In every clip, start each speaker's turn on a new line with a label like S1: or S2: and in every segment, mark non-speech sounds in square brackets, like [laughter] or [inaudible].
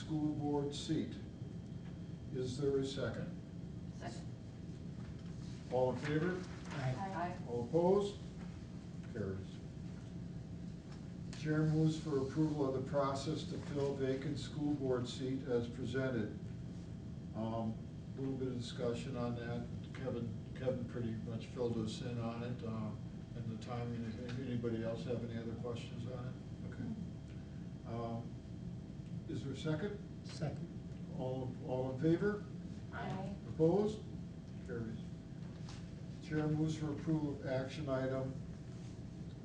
S1: school board seat. Is there a second?
S2: Second.
S1: All in favor?
S2: Aye.
S1: All opposed? Carries. Chair moves for approval of the process to fill vacant school board seat as presented. Um, Little bit of discussion on that. Kevin, Kevin pretty much filled us in on it, um, and the timing. If Anybody else have any other questions on it? Okay. Um, Is there a second?
S3: Second.
S1: All, all in favor?
S2: Aye.
S1: Opposed? Carries. Chair moves for approval of action item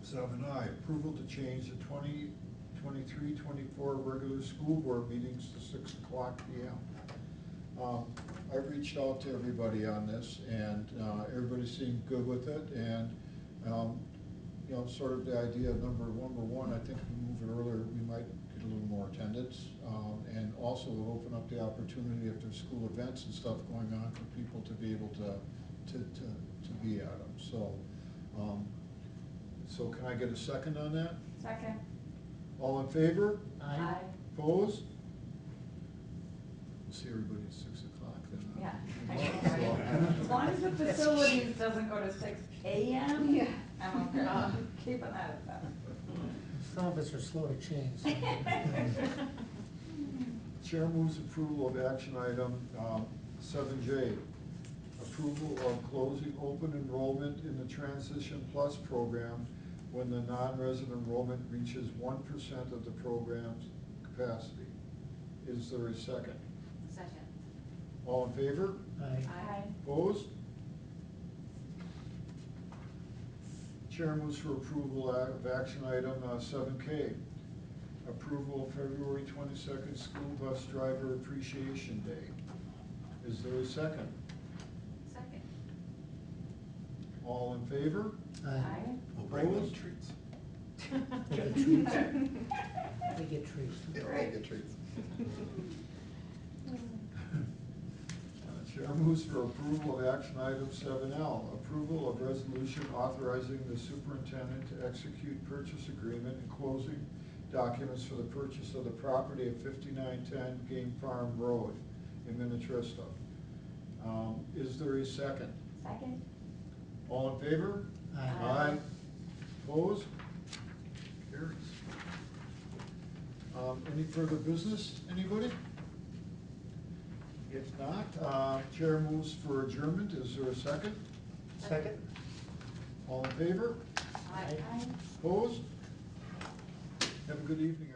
S1: seven I, approval to change the 20 23-24 regular school board meetings to six o'clock P M. Um, I reached out to everybody on this, and, uh, everybody seemed good with it, and, um, you know, sort of the idea of number, number one, I think if we move it earlier, we might get a little more attendance, um, and also open up the opportunity if there's school events and stuff going on for people to be able to, to, to, to be at them, so, um, so can I get a second on that?
S2: Second.
S1: All in favor?
S3: Aye.
S1: Opposed? We'll see everybody at six o'clock then. huh? [laughs]
S2: Yeah.
S1: Well, [laughs]
S2: As long as the facilities doesn't go to six AM,
S4: Yeah.
S2: I'm okay. I'm keeping that at
S3: Some of us are slow to [laughs] change.
S2: that.
S1: Chair moves approval of action item um, seven J. Approval of closing open enrollment in the Transition Plus program when the non-resident enrollment reaches one percent of the program's capacity. Is there a second?
S4: Second.
S1: All in favor?
S3: Aye.
S2: Aye.
S1: Opposed? Chair moves for approval of action item uh, seven K. Approval of February twenty-second School Bus Driver Appreciation Day. Is there a second?
S4: Second.
S1: All in favor?
S3: Aye. [laughs]
S5: We'll bring them
S1: Opposed?
S5: treats.
S3: Get a treat. They get trees.
S5: Yeah, we'll get treats.
S1: Uh, Chair moves for approval of action item seven L. Approval of resolution authorizing the superintendent to execute purchase agreement and closing documents for the purchase of the property at fifty-nine ten Game Farm Road in Minnetrista. Um, Is there a second?
S2: Second.
S1: All in favor?
S3: Aye.
S1: Aye. Opposed? Carries. Um, any further business, anybody? If not, uh, chair moves for adjournment, is there a second?
S3: Second?
S1: All in favor?
S4: Aye.
S1: Opposed? Have a good evening,